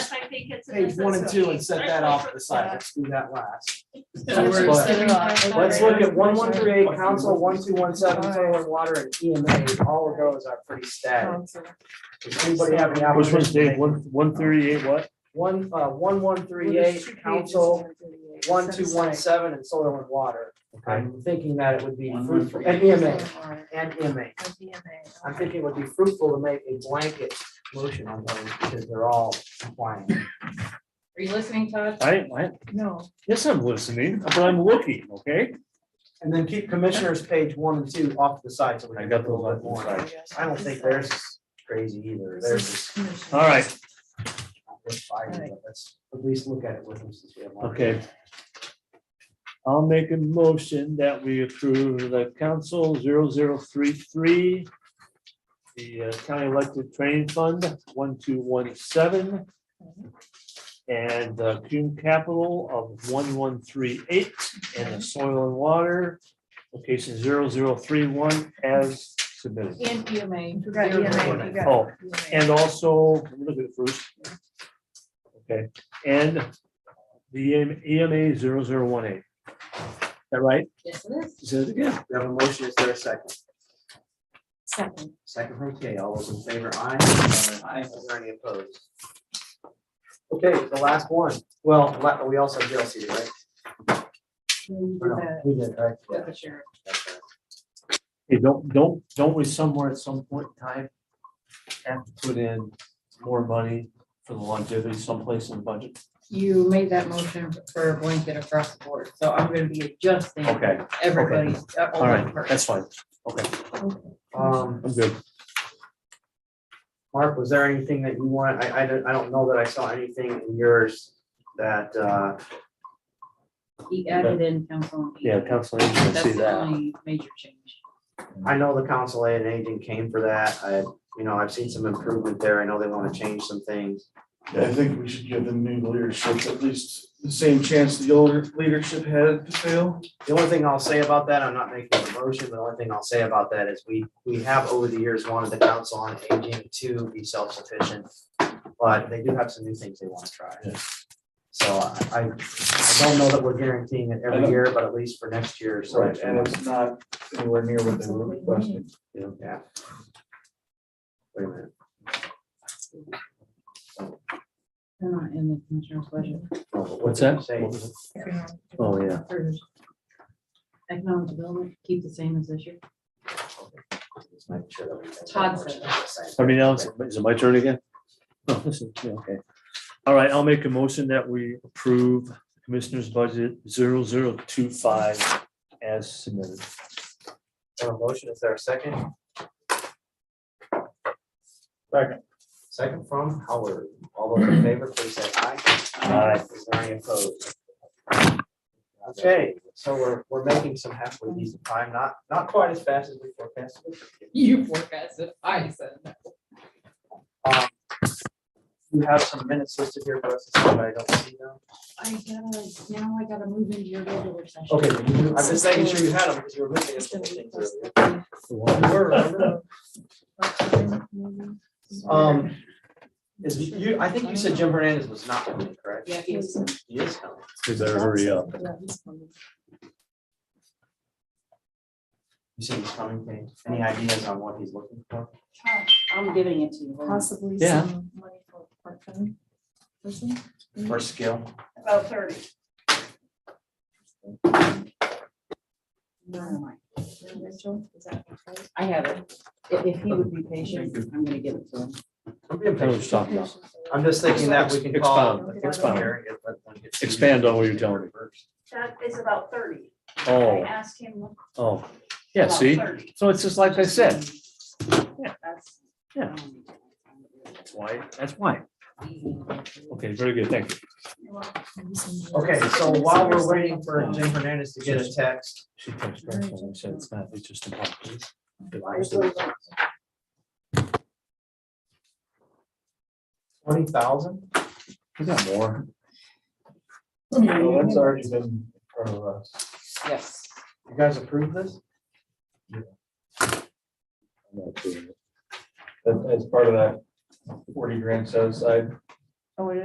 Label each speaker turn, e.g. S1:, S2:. S1: think it's. a
S2: page one and two and set that off to the side,
S1: Yeah.
S2: let's do that last.
S3: So we're
S2: But-
S3: sitting on-
S2: Let's look at one one three eight, council, one two one seven, soil and water, and EMA, all of those are pretty static. Does anybody have any
S4: Which
S2: opposition?
S4: one's
S2: to
S4: Dave,
S2: make-
S4: one, one thirty-eight, what?
S2: One, uh, one one three eight, council, one two one seven, and soil and water. I'm thinking that it would be
S5: One, one,
S2: fruitful,
S5: three,
S2: and EMA, and EMA. I'm thinking it would be fruitful to make a blanket motion on those, because they're all compliant.
S3: Are you listening, Todd?
S4: I, I,
S1: No.
S4: yes, I'm listening, but I'm looking, okay?
S2: And then keep commissioners page one and two off to the side, so we
S4: I
S2: can
S4: got
S2: get a little
S4: those
S2: bit more.
S4: off to the
S2: I don't think theirs is crazy either, theirs is
S4: All right,
S2: not worth fighting, but let's at least look at it with them since we have. one.
S4: okay. I'll make a motion that we approve the council 0033, the uh, county elected training fund, one two one seven, and the Cume Capital of one one three eight, and the soil and water, location 0031 as submitted.
S3: And EMA.
S1: Right, EMA, you got
S4: Oh, and also, let me look at it first. Okay, and the E EMA 0018. Is That right?
S3: Yes, it is.
S4: Say it again.
S2: We have a motion, is there a second?
S3: Second.
S2: Second from Kay, all those in favor, aye. Aye. Is there any opposed? Okay, the last one, well, la- we also have DLC, right? Or no? We did, right? Yeah, that's right.
S4: Hey, don't, don't, don't we somewhere at some point in time have to put in more money for the longevity someplace in the budget?
S3: You made that motion for a blanket across the board, so I'm gonna be adjusting uh,
S4: Okay,
S3: everybody's.
S4: all right, that's fine. Okay,
S2: Um,
S4: I'm good.
S2: Mark, was there anything that you want, I, I don't, I don't know that I saw anything in yours that, uh,
S3: He added in council. E.
S4: Yeah, council, you can
S3: That's
S4: see
S3: the
S4: that.
S3: only major change.
S2: I know the council aid and aging came for that. I, you know, I've seen some improvement there. I know they want to change some things.
S6: Yeah, I think we should give the new leadership at least the same chance the older leadership had to fail.
S2: The only thing I'll say about that, I'm not making a motion, but the only thing I'll say about that is we, we have over the years wanted the council on aging to be self-sufficient. But they do have some new things they want to try. So I, I don't know that we're guaranteeing it every year, but at least for next year, so.
S6: Right, and it's not anywhere near what they were requesting.
S2: Yeah. Wait a minute.
S3: They're not uh, in the commissioner's budget.
S2: No, but what
S4: What's
S2: did you
S4: that?
S2: say?
S4: What was it? Oh, yeah.
S3: There's Economic development, keep the same as this year.
S2: Just make sure that we have that
S3: Todd
S2: motion
S3: said
S2: at the same
S4: Somebody
S2: time.
S4: else, is it my turn again? Oh, this is- yeah, Okay. All right, I'll make a motion that we approve Commissioner's Budget 0025 as submitted.
S2: On a motion, is there a second?
S6: Second.
S2: Second from Howard. All those in favor, please say aye.
S4: Aye.
S2: Is there any opposed? Okay, so we're, we're making some halfway decent time, not, not quite as fast as we forecasted.
S3: You forecasted, I said.
S2: Um, You have some minutes listed here for us, to see, but I don't see them.
S3: I gotta, now I gotta move into your regular session.
S2: Okay, I'm just making sure you had them because you were missing a couple things earlier. You were, remember? Um, Is you, I think you said Jim Hernandez was not coming, correct?
S3: Yeah, he is.
S2: He is coming.
S4: You better hurry up.
S2: You said he's coming, Kate. Any ideas on what he's looking for?
S3: I'm giving it to you.
S7: possibly
S4: Yeah.
S7: some money for a part-time person.
S2: For skill?
S1: About thirty.
S3: Never mind.
S7: Rachel, is that right?
S3: I have it. If if he would be patient, I'm gonna give it to him.
S4: Tell us something else.
S2: I'm just thinking that we can call.
S4: Expound,
S7: expound.
S4: Expand on what you're telling me.
S1: That is about thirty. I
S4: Oh,
S1: asked him.
S4: oh, yeah,
S1: about
S4: see,
S1: 30.
S4: so it's just like I said,
S3: That's-
S4: Yeah. that's why, that's why. Okay, very good, thank you.
S2: Okay, so while we're waiting for Jim Hernandez to get a text,
S4: She texted back and said it's not, it's just a bump.
S2: twenty thousand?
S4: We got more.
S6: Well, that's already been in front of us.
S3: Yes.
S2: You guys approve this?
S4: I'm not doing it.
S6: As- As part of that forty grand set aside.
S7: Oh, it